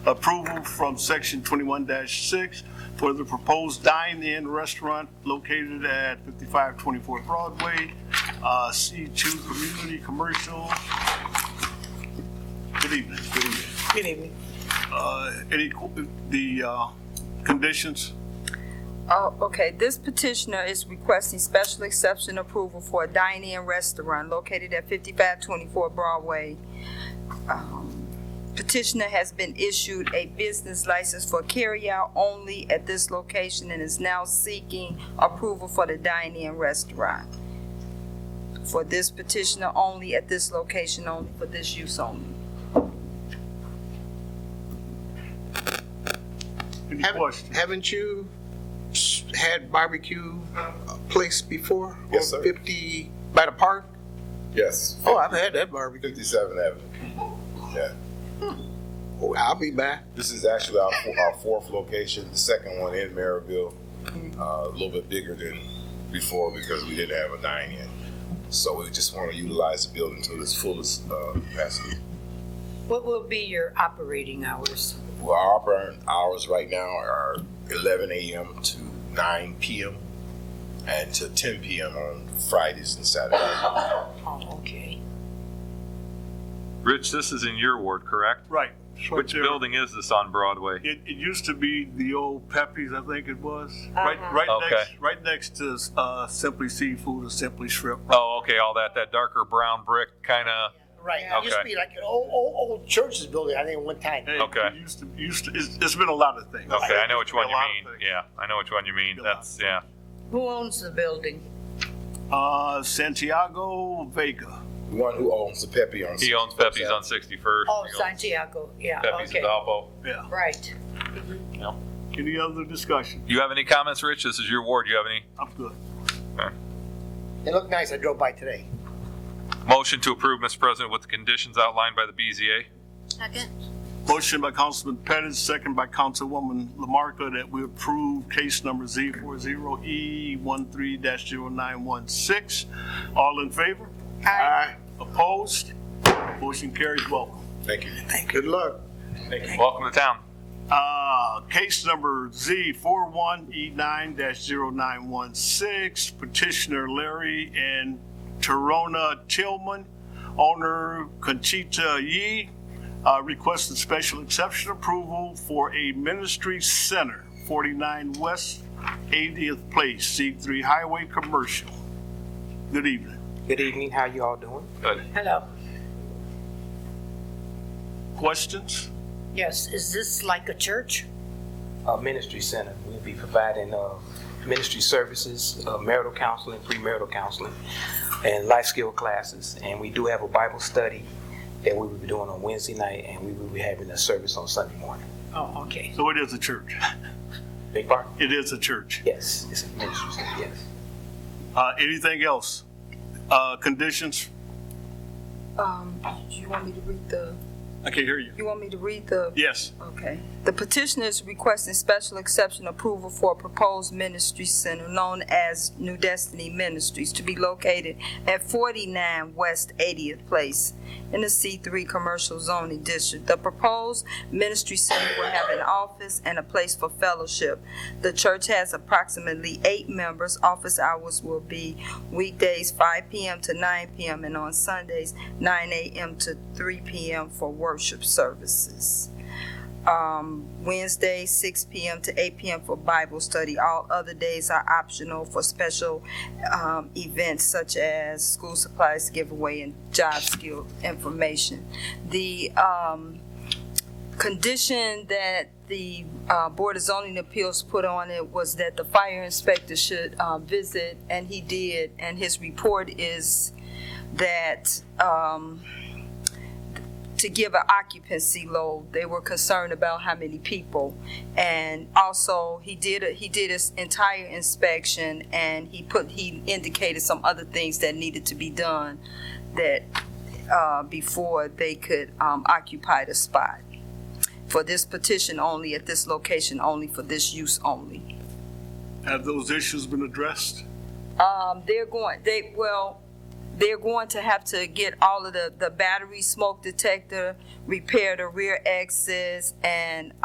approval from section twenty-one six for the proposed dine-in restaurant located at fifty-five twenty-four Broadway, uh, C two Community Commercial. Good evening. Good evening. Good evening. Uh, any, qu- the, uh, conditions? Oh, okay, this petitioner is requesting special exception approval for a dine-in restaurant located at fifty-five twenty-four Broadway. Um, Petitioner has been issued a business license for carryout only at this location and is now seeking approval for the dine-in restaurant. For this petitioner only at this location only, for this use only. Any Haven't- questions? Haven't you s- had barbecue place before? Yes, On sir. Fifty, by the park? Yes, Oh, I've had that barbecue. 57th Avenue. Yeah, Oh, I'll be back. this is actually our, fo- our fourth location, the second one in Maryville, uh, a little bit bigger than before because we didn't have a dine-in. So we just want to utilize the building to its fullest uh, capacity. What will be your operating hours? Well, our operating hours right now are 11 a.m. to 9 p.m. and to 10 p.m. on Fridays and Saturdays. Oh, okay. Rich, this is in your ward, correct? Right. it's right Which there. building is this on Broadway? It, it used to be the old Pepe's, I think it was. Right, right Okay. next, right next to, uh, Simply Seafood or Simply Shrimp. Oh, okay, all that, that darker brown brick kind of, Right. It used to Okay. be like an old, old, old church's building, I think, one time. Hey, Okay. it Used to, used to, it's, it's been a lot of things. okay, I know which It's been one a you lot of mean. things. Yeah, I know which one you mean. Be a lot. That's, yeah. Who owns the building? Uh, Santiago Vega. The one who owns the Pepe on He owns 61st Pepe's Avenue. on 61st. Oh, He owns Santiago, yeah, Pepe's okay, in Valpo. Yeah. right. Any other discussion? You have any comments, Rich? This is your ward. You have any? I'm good. It looked nice. I drove by today. Motion to approve, Mr. President, with the conditions outlined by the BZA. Motion by Councilman Pettis, second by Councilwoman Lamarcus, that we approve case number Z four zero E one three dash zero nine one six. All in favor? Aye. Opposed? Motion carries. Welcome. Thank you. Good luck. Welcome to town. Uh, case number Z four one E nine dash zero nine one six, petitioner Larry and Torona Tillman, owner Conchita Yee, uh, requested special exception approval for a ministry center, forty-nine West Eightieth Place, C three Highway Commercial. Good evening. Good evening, how you all doing? Good. Hello, Questions? yes, is this like a church? Uh, Ministry Center, we'll be providing, uh, ministry services, uh, marital counseling, premarital counseling, and life skill classes. And we do have a Bible study that we will be doing on Wednesday night, and we will be having a service on Sunday morning. Oh, okay, So it is a church. Big part? It is a church. Yes, it's a ministry center, yes. Uh, anything else? Uh, conditions? Um, you want me to read the, I can't hear you. you want me to read the Yes. Okay. The petitioner is requesting special exception approval for a proposed ministry center known as New Destiny Ministries to be located at 49 West 80th Place in the C3 Commercial Zoning District. The proposed ministry center will have an office and a place for fellowship. The church has approximately eight members. Office hours will be weekdays 5 p.m. to 9 p.m. and on Sundays 9 a.m. to 3 p.m. for worship services um, Wednesday, six PM to eight PM for Bible study. All other days are optional for special, um, events such as school supplies giveaway and job skill information. The, um, condition that the, uh, Board of Zoning Appeals put on it was that the fire inspector should, uh, visit, and he did, and his report is that, um, to give an occupancy load. They were concerned about how many people. And also, he did, a- he did his entire inspection and he put, he indicated some other things that needed to be done that, uh, before they could, um, occupy the spot. For this petition only, at this location only, for this use only. Have those issues been addressed? Um, they're going, they, well, they're going to have to get all of the, the battery smoke detector, repair the rear exits, and